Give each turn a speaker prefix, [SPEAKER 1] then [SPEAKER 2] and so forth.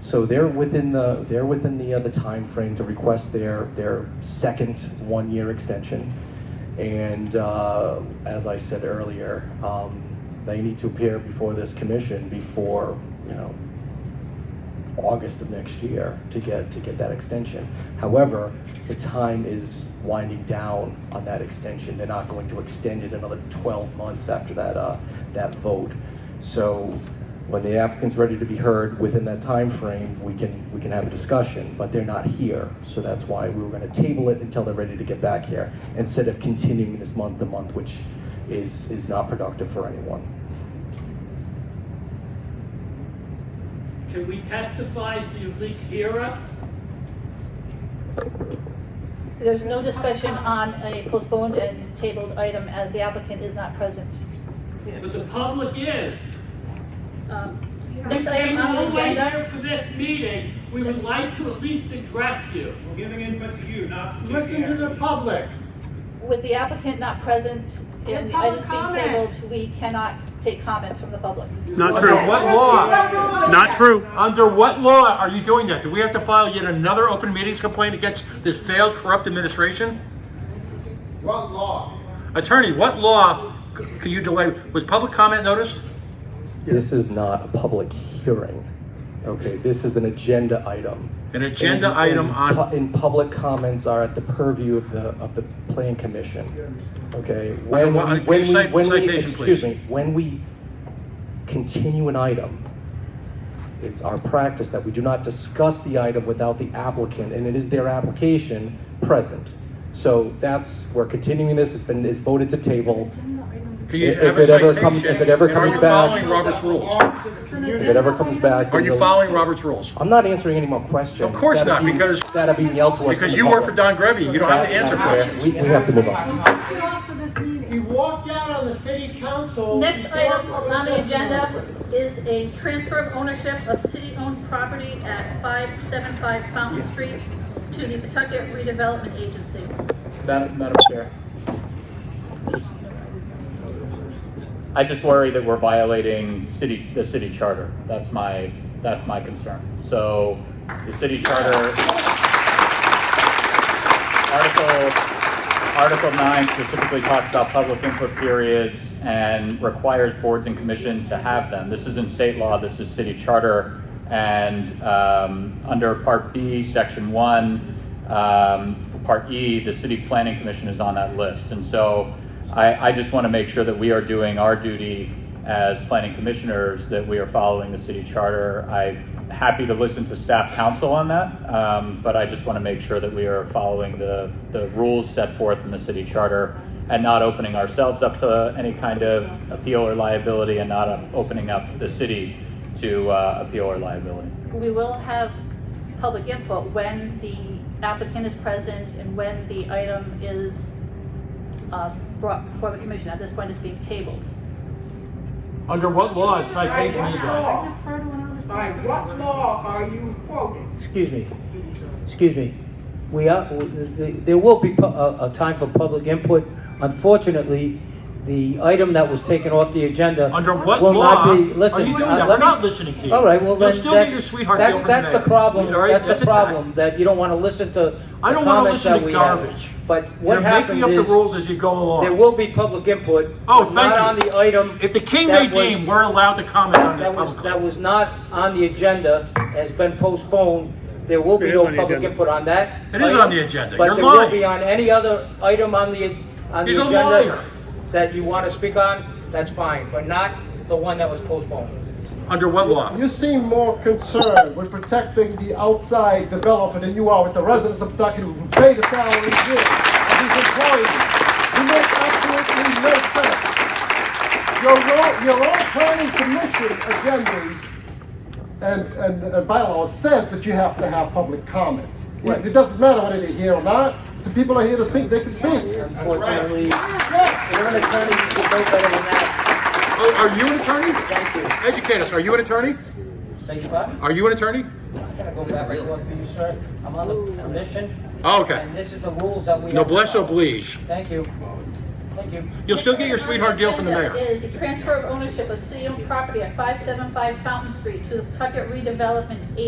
[SPEAKER 1] So they're within the, they're within the, uh, the timeframe to request their, their second one-year extension. And, uh, as I said earlier, um, they need to appear before this commission before, you know, August of next year to get, to get that extension. However, the time is winding down on that extension. They're not going to extend it another 12 months after that, uh, that vote. So when the applicant's ready to be heard within that time frame, we can, we can have a discussion, but they're not here. So that's why we were gonna table it until they're ready to get back here, instead of continuing this month to month, which is, is not productive for anyone.
[SPEAKER 2] Can we testify so you at least hear us?
[SPEAKER 3] There's no discussion on a postponed and tabled item as the applicant is not present.
[SPEAKER 2] But the public is.
[SPEAKER 3] Um,
[SPEAKER 2] We
[SPEAKER 3] This item
[SPEAKER 2] came
[SPEAKER 3] on
[SPEAKER 2] all
[SPEAKER 3] the
[SPEAKER 2] the way
[SPEAKER 3] agenda,
[SPEAKER 2] here for this meeting. We would like to at least address you.
[SPEAKER 4] We're giving input to you, not to just
[SPEAKER 5] Listen to the
[SPEAKER 4] the
[SPEAKER 5] public.
[SPEAKER 3] with the applicant not present and the items being tabled, we cannot take comments from the public.
[SPEAKER 6] Not
[SPEAKER 5] Under
[SPEAKER 6] true.
[SPEAKER 5] what law?
[SPEAKER 6] Not true.
[SPEAKER 5] Under what law are you doing that? Do we have to file yet another open meetings complaint against this failed corrupt administration?
[SPEAKER 4] What law?
[SPEAKER 5] Attorney, what law c- can you delay? Was public comment noticed?
[SPEAKER 1] This is not a public hearing, okay? This is an agenda item.
[SPEAKER 5] An agenda
[SPEAKER 1] And-
[SPEAKER 5] item
[SPEAKER 1] and
[SPEAKER 5] on-
[SPEAKER 1] pu- And public comments are at the purview of the, of the plan commission, okay?
[SPEAKER 5] I
[SPEAKER 1] When,
[SPEAKER 5] want-
[SPEAKER 1] we-
[SPEAKER 5] can
[SPEAKER 1] when
[SPEAKER 5] you
[SPEAKER 1] we,
[SPEAKER 5] cite-
[SPEAKER 1] when we,
[SPEAKER 5] citation,
[SPEAKER 1] excuse
[SPEAKER 5] please?
[SPEAKER 1] me, when we continue an item, it's our practice that we do not discuss the item without the applicant, and it is their application present. So that's, we're continuing this, it's been, it's voted to table.
[SPEAKER 5] Can you
[SPEAKER 1] If-
[SPEAKER 5] have
[SPEAKER 1] if
[SPEAKER 5] a
[SPEAKER 1] it ever comes-
[SPEAKER 5] citation?
[SPEAKER 1] if it ever
[SPEAKER 5] And
[SPEAKER 1] comes
[SPEAKER 5] Are
[SPEAKER 1] back-
[SPEAKER 5] you following Robert's rules?
[SPEAKER 1] If it ever comes back.
[SPEAKER 5] Are you
[SPEAKER 1] we'll-
[SPEAKER 5] following Robert's rules?
[SPEAKER 1] I'm not answering any more questions.
[SPEAKER 5] Of course
[SPEAKER 1] That'd
[SPEAKER 5] not,
[SPEAKER 1] be-
[SPEAKER 5] because-
[SPEAKER 1] That'd be yelled to us.
[SPEAKER 5] Because
[SPEAKER 1] from
[SPEAKER 5] you
[SPEAKER 1] the
[SPEAKER 5] work for
[SPEAKER 1] public.
[SPEAKER 5] Don Grebby, you don't have to answer questions.
[SPEAKER 1] We, we have to move on.
[SPEAKER 7] He walked out on the city council.
[SPEAKER 8] Next
[SPEAKER 7] before
[SPEAKER 8] item
[SPEAKER 7] public
[SPEAKER 8] on the agenda
[SPEAKER 7] testimony.
[SPEAKER 8] is a transfer of ownership of city-owned property at 575 Fountain Street to the Pawtucket Redevelopment Agency.
[SPEAKER 9] Madam, Madam Chair. Just- I just worry that we're violating city, the city charter. That's my, that's my concern. So the city charter. Article, Article nine specifically talks about public input periods and requires boards and commissions to have them. This isn't state law, this is city charter. And, um, under Part B, Section one, um, Part E, the city planning commission is on that list. And so I, I just want to make sure that we are doing our duty as planning commissioners, that we are following the city charter. I'm happy to listen to staff counsel on that, um, but I just want to make sure that we are following the, the rules set forth in the city charter and not opening ourselves up to any kind of appeal or liability and not uh, opening up the city to uh, appeal or liability.
[SPEAKER 3] We will have public input when the applicant is present and when the item is uh, brought before the commission. At this point, it's being tabled.
[SPEAKER 5] Under what law and citation is
[SPEAKER 7] By
[SPEAKER 5] that?
[SPEAKER 7] what law? By what law are you quoting?
[SPEAKER 9] Excuse me, excuse me. We are, there will be a time for public input. Unfortunately, the item that was taken off the agenda
[SPEAKER 5] Under what law are you doing that? We're not listening to you.
[SPEAKER 9] uh, All right, well,
[SPEAKER 5] You'll
[SPEAKER 9] then.
[SPEAKER 5] still
[SPEAKER 9] that-
[SPEAKER 5] get your sweetheart
[SPEAKER 9] That's,
[SPEAKER 5] deal from
[SPEAKER 9] that's the
[SPEAKER 5] May.
[SPEAKER 9] problem,
[SPEAKER 5] All right,
[SPEAKER 9] that's the
[SPEAKER 5] a tactic.
[SPEAKER 9] problem, that you don't want to listen to
[SPEAKER 5] I
[SPEAKER 9] the
[SPEAKER 5] don't want to
[SPEAKER 9] comments
[SPEAKER 5] listen
[SPEAKER 9] that
[SPEAKER 5] to
[SPEAKER 9] we have.
[SPEAKER 5] garbage.
[SPEAKER 9] But what happens
[SPEAKER 5] You're making up
[SPEAKER 9] is,
[SPEAKER 5] the rules as you go
[SPEAKER 9] there
[SPEAKER 5] along.
[SPEAKER 9] will be public input.
[SPEAKER 5] Oh,
[SPEAKER 9] but
[SPEAKER 5] thank
[SPEAKER 9] Not
[SPEAKER 5] you.
[SPEAKER 9] on the item.
[SPEAKER 5] If the king
[SPEAKER 9] that
[SPEAKER 5] may
[SPEAKER 9] was-
[SPEAKER 5] deem, we're allowed to comment on this
[SPEAKER 9] That was, that
[SPEAKER 5] publicly.
[SPEAKER 9] was not on the agenda, has been postponed. There will be no public input on that.
[SPEAKER 5] It is
[SPEAKER 9] item,
[SPEAKER 5] on the agenda. You're
[SPEAKER 9] But there will
[SPEAKER 5] lying.
[SPEAKER 9] be on any other item on the, on the
[SPEAKER 5] He's a liar.
[SPEAKER 9] agenda that you want to speak on, that's fine, but not the one that was postponed.
[SPEAKER 5] Under what law?
[SPEAKER 10] You seem more concerned with protecting the outside developer than you are with the residents of Pawtucket who pay the salaries here of these employees. You make absolutely no sense. Your own, your own planning commission agendas and, and, and bylaws says that you have to have public comments. It doesn't matter whether they're here or not. Some people are here to speak, they can speak.
[SPEAKER 9] Unfortunately, you're an attorney, you should know better than that.
[SPEAKER 5] Oh, Are you an attorney?
[SPEAKER 9] Thank you.
[SPEAKER 5] Educate us. Are you an attorney?
[SPEAKER 9] Thank you, pardon?
[SPEAKER 5] Are you an attorney?
[SPEAKER 9] I'm gonna go back and forth with you, sir. I'm on the commission,
[SPEAKER 5] Oh, okay.
[SPEAKER 9] and this is the rules that we have. to
[SPEAKER 5] Noblesse
[SPEAKER 9] follow.
[SPEAKER 5] oblige.
[SPEAKER 9] Thank you. Thank you.
[SPEAKER 5] You'll still get your sweetheart deal from the mayor.
[SPEAKER 8] Is a transfer of ownership of city-owned property at 575 Fountain Street to the Pawtucket Redevelopment